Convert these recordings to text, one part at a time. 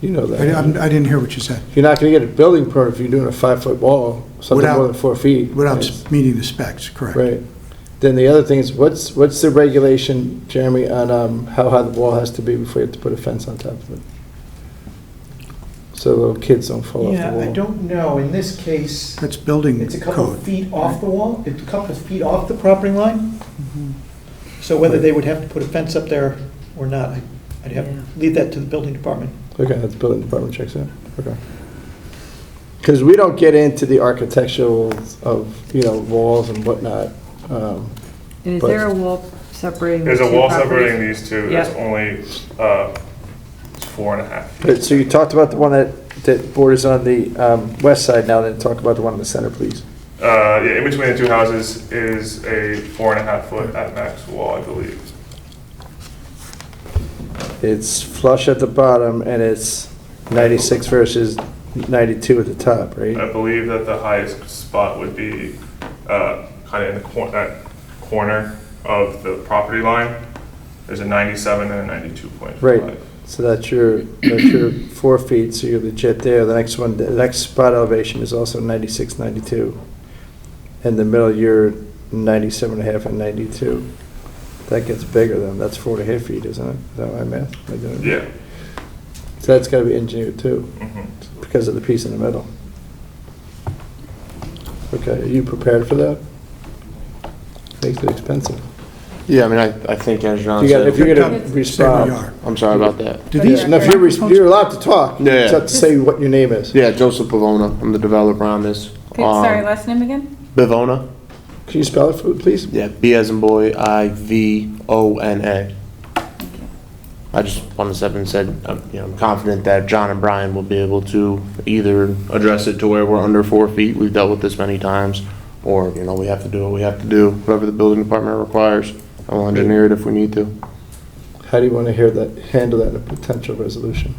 You know I that. didn't I didn't hear what you said, You're not going to get a building permit if you're doing a five-foot wall, something Without- more than four feet. without meeting the specs, correct? Right. Then the other thing is, what's, what's the regulation, Jeremy, on um, how high the wall has to be before you have to put a fence on top of it? So little kids don't fall off the Yeah, wall. I don't know, in this case, That's building it's a couple of code. feet off the wall, it's a couple of feet off the property line. Mm-hmm. So whether they would have to put a fence up there or not, I- I'd Yeah. have, leave that to the building department. Okay, that's building department checks out, okay. Because we don't get into the architectural of, you know, walls and whatnot. um, And is But- there a wall separating? the There's a two wall properties? separating these two, that's Yeah. only, uh, it's four and a half But, feet. so you talked about the one that, that borders on the um, west side now, then talk about the one in the center, please. Uh, yeah, in between the two houses is a four and a half foot at max wall, I believe. It's flush at the bottom and it's 96 versus 92 at the top, right? I believe that the highest spot would be, uh, kind of in the cor, that corner of the property line. There's a ninety-seven and a ninety-two point five. Right, so that's your, that's your four feet, so you're legit there. The next one, the next spot elevation is also 96, 92. In the middle, you're 97 and a half and 92. That gets bigger then, that's four and a half feet, isn't it? Is that my math? Am I doing it? Yeah. So that's gotta be engineered too. mhm. because of the piece in the middle. Okay, are you prepared for that? Makes it expensive. Yeah, I mean, I, I think as John You got, if said, you're gonna Come, Say where you respond, are. I'm sorry about that. Do Okay. these no, if you're, res- you're allowed to talk, you Yeah. just have to say what your name is. Yeah, Joseph Bavona, I'm the developer on this. Okay, Sorry, Um, last name again? Bavona, Can you spell it for me, please? yeah, B as in boy, I V O N A. I just wanted to step in and said, um, you know, I'm confident that John and Brian will be able to either address it to where we're under four feet, we've dealt with this many times, or, you know, we have to do what we have to do, whatever the building department requires. I'll engineer it if we need to. How do you wanna hear that, handle that in a potential resolution?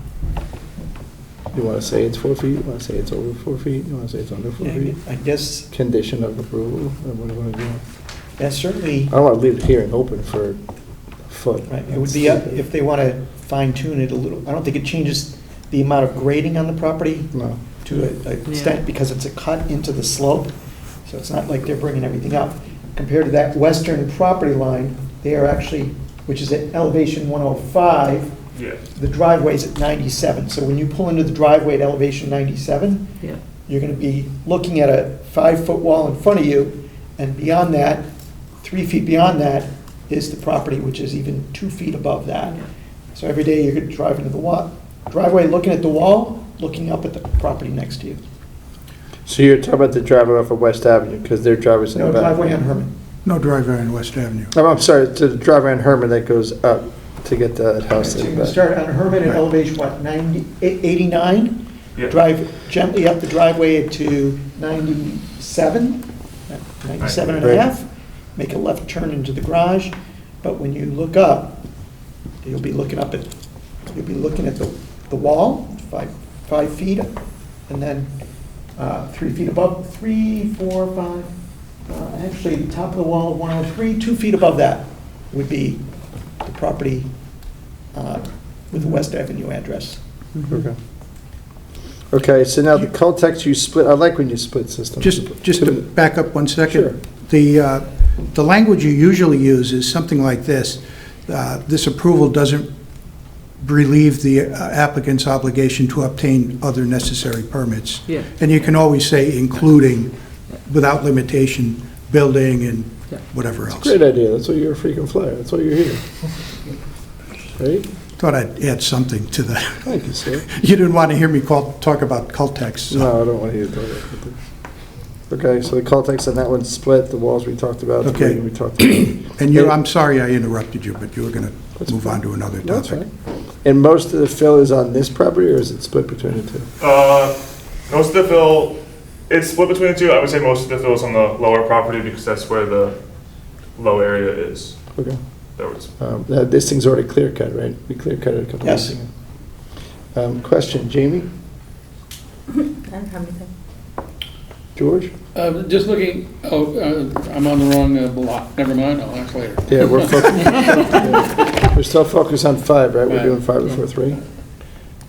You wanna say it's four feet, you wanna say it's over four feet, you wanna say it's under four feet? I guess, Condition of approval, or what do you wanna do? that's certainly, I don't wanna leave the hearing open for a foot. right, it would Uh, be, up if they want to fine tune it a little, I don't think it changes the amount of grading on the property No. to a- a extent, because it's a cut into the slope, so it's not like they're bringing everything up. Compared to that western property line, they are actually, which is at elevation 105, Yeah. the driveway's at 97. So when you pull into the driveway at elevation 97, Yeah. you're going to be looking at a five-foot wall in front of you, and beyond that, three feet beyond that, is the property, which is even two feet above that. So every day, you're driving to the wa, driveway, looking at the wall, looking up at the property next to you. So you're talking about the driveway off of West Avenue, because their driveway's in the No, back. driveway on Herman. No driveway on West Avenue. Oh, I'm sorry, to the driveway on Herman that goes up to get to that house So you in can the back. start on Herman at elevation, what, 90, 89? Yeah. Drive gently up the driveway to 97, 97 and a Right. half, make a left turn into the garage, but when you look up, you'll be looking up at, you'll be looking at the, the wall, five, five feet, and then uh, three feet above, three, four, five, uh, actually, the top of the wall, 103, two feet above that would be the property uh, with the West Avenue address. Okay. Okay, so now the cul-de-sacs you split, I like when you split systems. Just, just to back up one Sure. second. The, uh, the language you usually use is something like this. Uh, This approval doesn't relieve the uh, applicant's obligation to obtain other necessary permits. Yeah. And you can always say including, without limitation, building and Yeah. whatever else. Great idea, that's why you're a freaking flyer, that's why you're here. Right? Thought I'd add something to the, Thank you, sir. you didn't want to hear me call, talk about Cultex, so. No, I don't want to hear that. Okay, so the cul-de-sacs on that one split, the walls we talked about, the Okay. grading we talked about. And you, I'm sorry I interrupted you, but you were going to move on to another topic. That's fine. And most of the fill is on this property, or is it split between the two? Uh, most of the fill, it's split between the two. I would say most of the fill is on the lower property because that's where the low area is. Okay. There was Um, now, This thing's already clear cut, right? We clear cut it a couple Yes. weeks ago. Um, Question, Jamie, I don't have anything. George? Uh, Just looking, oh, uh, I'm on the wrong uh, block, never mind, I'll ask later. Yeah, we're focused, we're still focused on five, right? We're doing five before three?